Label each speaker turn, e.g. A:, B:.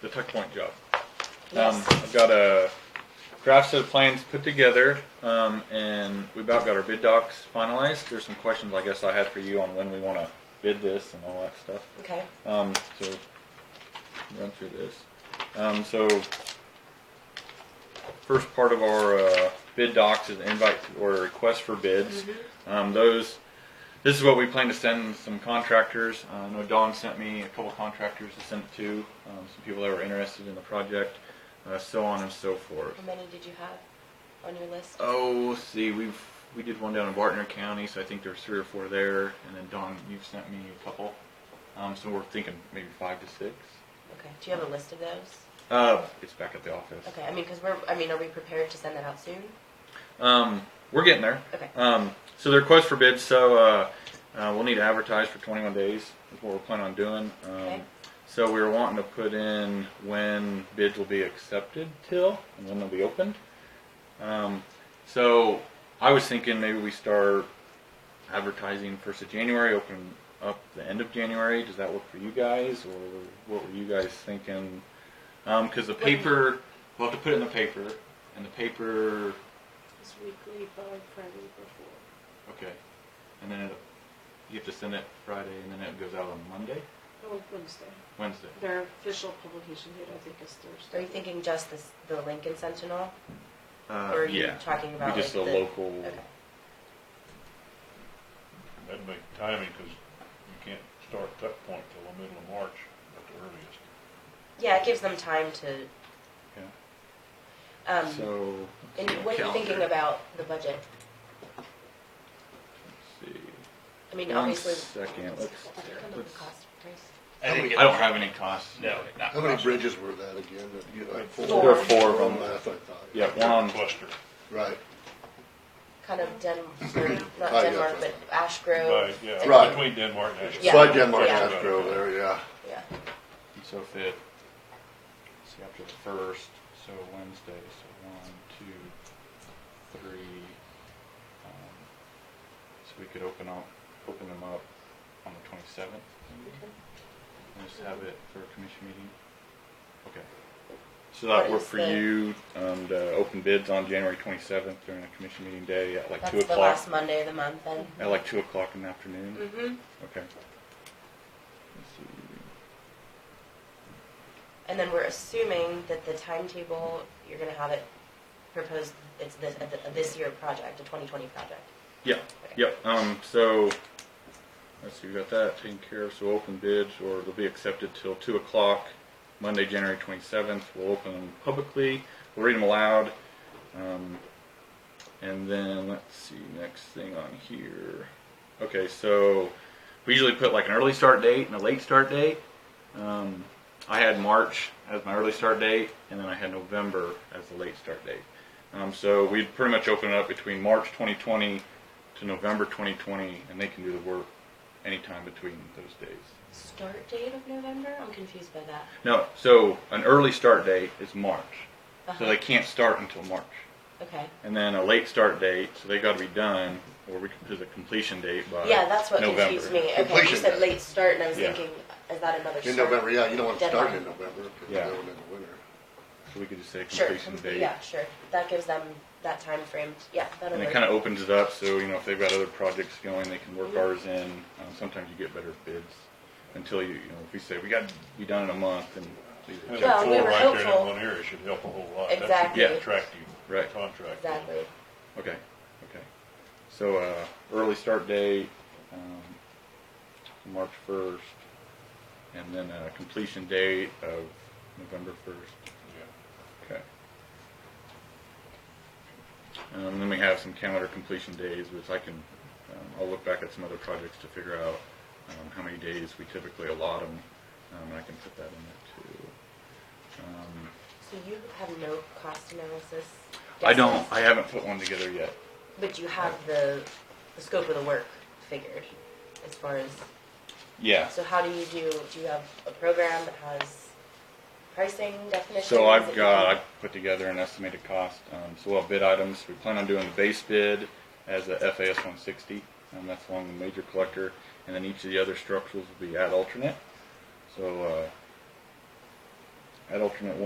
A: the tuck point job.
B: Yes.
A: Um, I've got a draft set of plans put together, um, and we about got our bid docs finalized. There's some questions I guess I had for you on when we want to bid this and all that stuff.
B: Okay.
A: Um, so run through this. Um, so first part of our uh, bid docs is invite or request for bids. Um, those this is what we plan to send some contractors. Uh, I know Don sent me a couple contractors to send it to, um, some people that were interested in the project, uh, so on and so forth.
B: How many did you have on your list?
A: Oh, let's see, we've we did one down in Bartner County, so I think there's three or four there, and then Don, you've sent me a couple. Um, so we're thinking maybe five to six.
B: Okay. Do you have a list of those?
A: Uh, it's back at the office.
B: Okay. I mean, because we're. I mean, are we prepared to send that out soon?
A: Um, we're getting there.
B: Okay.
A: Um, so the request for bids, so, uh, uh, we'll need to advertise for twenty-one days, is what we're planning on doing. Um,
B: Okay.
A: so we were wanting to put in when bids will be accepted till, and when they'll be opened. Um, so I was thinking maybe we start advertising first of January, open up the end of January. Does that work for you guys, or what were you guys thinking? Um, cause the
B: What do you-
A: paper, we'll have to put it in the paper, and the paper,
C: It's weekly by Friday before.
A: okay, and then it- you have to send it Friday, and then it goes out on Monday,
C: Oh, Wednesday.
A: Wednesday.
C: Their official publication date, I think, is
B: Are
C: Thursday.
B: you thinking just this, the Lincoln Sentinel,
A: Uh,
B: or are you
A: yeah,
B: talking
A: be
B: about
A: just a
B: like the,
A: local.
B: Okay.
D: That'd make timing, because you can't start Tuck Point till the middle of March at the earliest.
B: Yeah, it gives them time to.
A: Yeah.
B: Um,
A: So.
B: and what are you thinking
A: calendar.
B: about the budget?
A: Let's see.
B: I mean,
A: One
B: obviously.
A: second, let's-
B: Did you come up with
A: let's-
B: a cost price?
E: I didn't get
A: I don't
E: that.
A: have any costs.
E: No, not
F: How many
E: possible.
F: bridges were that again? that you had?
B: Four. There were
A: four of them.
F: Wrong math, I thought.
A: Yeah, um, one on,
D: Cluster.
F: Right.
B: Kind of Den, or not
F: Oh, yeah,
B: Denmark, but
F: right.
B: Ash Grove.
D: By- Yeah,
F: Right.
D: between Denmark and Ashland.
B: Yeah.
F: Slide Denmark
B: Yeah.
F: Astro there, yeah.
B: Yeah.
A: so if it, let's see, after the first, so Wednesday, so one, two, three. um, So we could open up, open them up on the twenty-seventh, and just have it for a commission meeting. Okay. So
B: that
A: that
B: What
A: work
B: work is
A: for
B: for the-
A: you, um, to open bids on January twenty-seventh during a commission meeting day at like two
B: That's the
A: o'clock?
B: last Monday of the month then.
A: At like two o'clock in the afternoon?
B: Mm-hmm.
A: Okay. Let's see.
B: And then we're assuming that the timetable, you're gonna have it proposed, it's this, a th- a this year project, a twenty twenty project.
A: Yeah, yep, um, so, let's see, we got that taken care of, so open bids, or they'll be accepted till two o'clock, Monday, January twenty-seventh, we'll open them publicly, we'll read them aloud, um, and then, let's see, next thing on here, okay, so, we usually put like an early start date and a late start date, um, I had March as my early start date, and then I had November as the late start date. Um, so we pretty much open it up between March 2020 to November 2020, and they can do the work anytime between those days.
B: Start date of November? I'm confused by that.
A: No, so an early start date is March, so
B: Uh-huh.
A: they can't start until March,
B: Okay.
A: and then a late start date, so they got to be done, or we can do the completion date by
B: Yeah, that's what
A: Uh, November.
B: confused me. Okay, you
F: Completion
B: said
F: date.
B: late start and I was
A: Yeah.
B: thinking, is that another start?
F: In November, yeah, you don't want to start in
B: Deadline.
F: November, because
A: Yeah.
F: you're going in the winter.
A: So we could just say
B: Sure,
A: completion date.
B: yeah, sure. That gives them that time frame. Yeah, that'll
A: And
B: work.
A: it kind of opens it up, so, you know, if they've got other projects going, they can work ours in. Um, sometimes you get better bids until you, you know, if we say, we got to be done in a month and. we-
D: Having
B: Well, we
D: four
B: were
D: right there in that
B: hopeful.
D: one area should help a whole lot.
B: Exactly.
D: That should
B: Yeah.
D: be attractive
A: Right.
D: contract.
B: Exactly.
A: Okay, okay. So, uh, early start date, um, March first, and then a completion date of November first.
D: Yeah.
A: Okay. Um, then we have some calendar completion days, which I can, um, I'll look back at some other projects to figure out, um, how many days we typically allot them, um, and I can put that in there too. Um,
B: So you have no cost analysis?
A: I don't,
B: guesses,
A: I haven't put one together yet.
B: But you have the, the scope of the work figured as far as,
A: Yeah.
B: so how do you do, do you have a program that has pricing definitions?
A: So
B: that
A: I've
B: you
A: got,
B: can-
A: I've put together an estimated cost, um, so we'll have bid items, we plan on doing the base bid as a FAS one sixty, and that's along the major collector, and then each of the other structures will be ad alternate, so, uh, at alternate one.